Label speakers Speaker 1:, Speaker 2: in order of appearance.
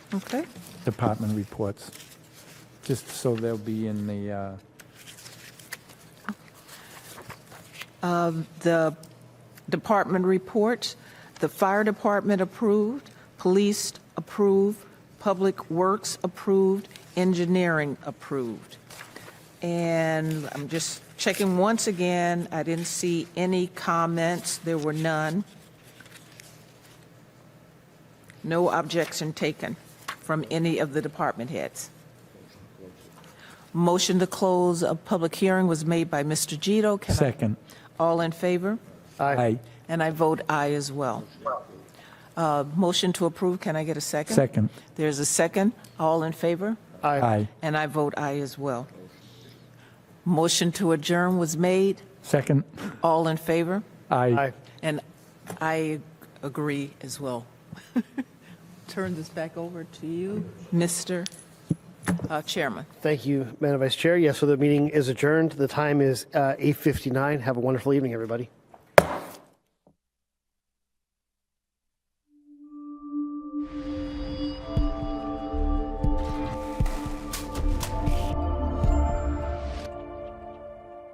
Speaker 1: Okay.
Speaker 2: department reports, just so they'll be in the, uh,
Speaker 1: The department reports, the fire department approved, police approved, public works approved, engineering approved. And I'm just checking once again, I didn't see any comments, there were none. No objection taken from any of the department heads. Motion to close a public hearing was made by Mr. Gito. Can I-
Speaker 2: Second.
Speaker 1: All in favor?
Speaker 2: Aye.
Speaker 1: And I vote aye as well. Uh, Motion to approve, can I get a second?
Speaker 2: Second.
Speaker 1: There's a second. All in favor?
Speaker 2: Aye.
Speaker 1: And I vote aye as well. Motion to adjourn was made.
Speaker 2: Second.
Speaker 1: All in favor?
Speaker 2: Aye.
Speaker 1: And I agree as well. Turn this back over to you, Mr. uh, Chairman.
Speaker 3: Thank you, Madam Vice Chair. Yes, so the meeting is adjourned. The time is uh, 8:59. Have a wonderful evening, everybody.